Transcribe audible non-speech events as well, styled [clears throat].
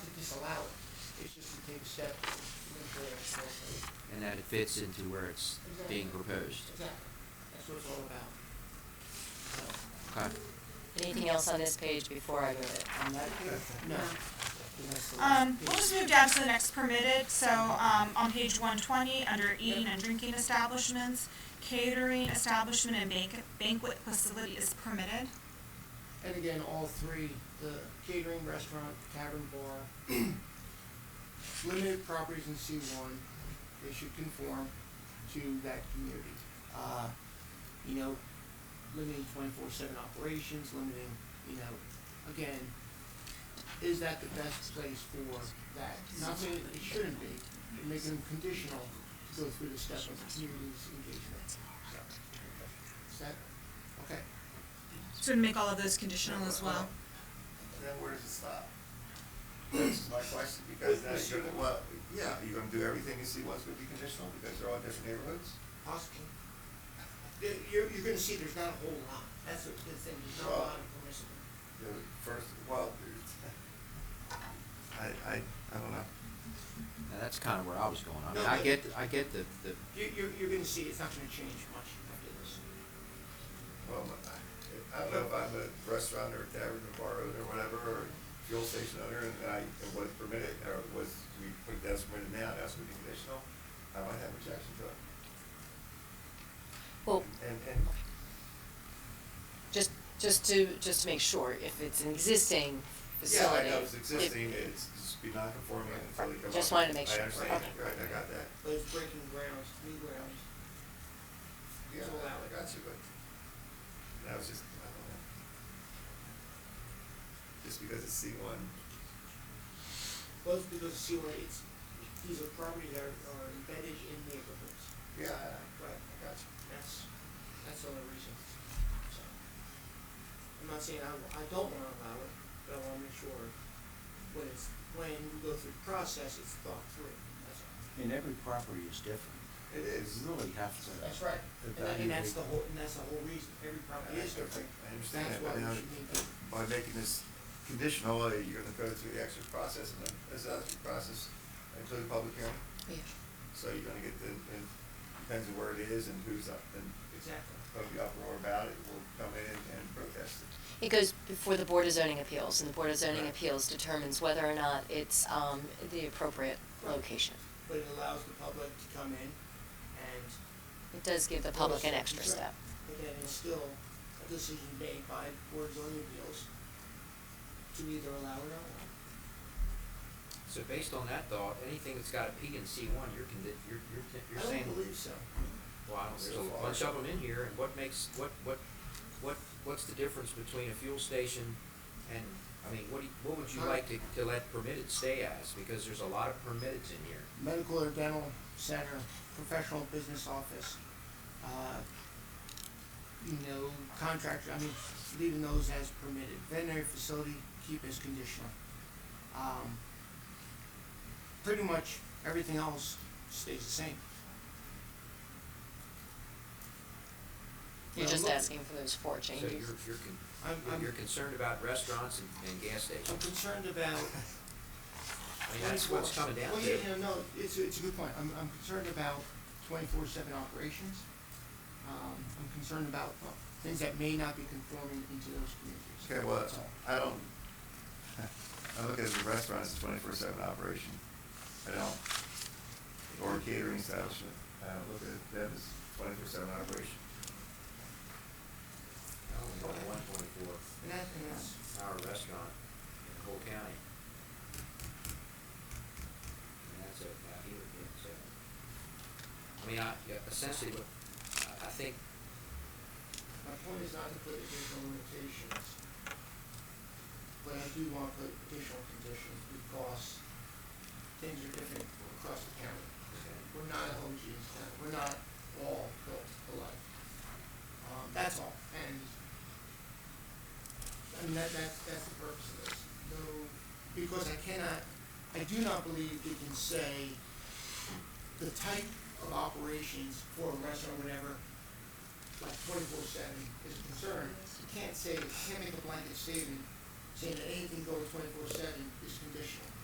it's allowed. It's just you take step into it. so- and that it fits into where it's being proposed. Exactly. That's what it's all about. So, Okay. Anything else on this page before I move it? I'm not- No. And that's the last Um, we'll piece. just move down to the next permitted, so, um, on page one twenty, under eating and drinking establishments, catering establishment and banquet, banquet facility is permitted. And again, all three, the catering restaurant, tavern, bar, [clears throat] limited properties in C one, they should conform to that community. Uh, you know, limiting twenty-four seven operations, limiting, you know, again, is that the best place for that? Not saying it shouldn't be, but making them conditional to go through the step of the community's engagement. So, Is that, okay? So to make all of those conditional as well. Then where does it stop? That's my question, because now you're gonna, well, yeah, you're gonna do everything you see what's gonna be conditional, because they're all different neighborhoods? Possibly. There- You're, you're gonna see there's not a whole lot, that's what the thing, there's not a lot of permission. The first, well, it's- I, I, I don't know. Now, that's kind of where I was going. I mean, No, I but- get, I get the, the, You, you're, you're gonna see it's not gonna change much after this. Well, I- I don't know if I'm a restaurant or tavern or bar owner or whatever, or fuel station owner, and I, it was permitted, or was, we put that's permitted now, that's gonna be conditional, I might have objection to it. Well, And, and just, just to, just to make sure, if it's an existing Yeah, I facility. know, it's if- existing, it's just be non-conforming until they come up. Just wanted to make sure. I understand, Okay. right, I got that. But it's breaking grounds, new grounds. Yeah, I got you, but that was just, I don't know. Just because it's C one, Both because see where it's, these are properties that are are embedded in neighborhoods. yeah, I Right. got you. That's, that's the only reason, so. I'm not saying I, I don't wanna allow it, but I wanna make sure when it's, when we go through the process, it's thought through, that's all. And every property is different. It is. You really have to. That's right, and, that- and that's the whole, and that's the whole reason, every property is different. I understand That's that, why but now, we should need to- by making this conditional, uh, you're gonna go through the extra process, and then, this extra process, include public hearing, Yeah. so you're gonna get the, and depends on where it is and who's up, and it's Exactly. of the uproar about it will come in and protest it. It goes before the Board of Zoning Appeals, and the Board of Zoning Right. Appeals determines whether or not it's, um, the appropriate Right. location. But it allows the public to come in and. It does give the public an extra That's right. step. But then it's still a decision made by board of zoning appeals to either allow or not allow. so based on that thought, anything that's got a P in C one, you're condi- you're, you're, you're I saying, don't believe so. well, I don't- there's So a far. bunch of them in here, and what makes, what, what, what, what's the difference between a fuel station and, I mean, what do, you- what would you Huh? like to, to let permitted stay as? Because there's a lot of permitteds in here. Medical or dental center, professional business office, uh, you know, contractor, I mean, leaving those as permitted. Veterinary facility, keep as conditional. Um, pretty much everything else stays the same. You're Yeah, just look- asking for those four So changes. you're, you're, con- I'm, I'm, you're concerned about restaurants and, and gas I'm stations. concerned [laughs] about I mean, that's what's coming down to. Well, Oh, yeah, yeah, no, it's, a- it's a good point. I'm, I'm concerned about twenty-four seven operations. Um, I'm concerned about uh, things that may not be conforming into those communities. Okay, well, That's all. I don't, I look at the restaurant as a twenty-four seven operation. I don't, or catering establishment, I don't look at them as twenty-four seven operation. I only got one twenty-four And that, and that's, hour restaurant in the whole county. And that's it, out here, yeah, so. I mean, I, yeah, essentially, what, I, I think, my point is not to put additional limitations. But I do want to put additional conditions because things are different across the county. okay, We're not homogeneous county. We're not all built alike. Um, that's all, and, I mean, that, that's, that's the purpose of this. No, because I cannot, I do not believe we can say the type of operations for a restaurant, whatever, like twenty-four seven is a concern. You can't say, you can't make a blanket statement saying that anything goes twenty-four seven is conditional.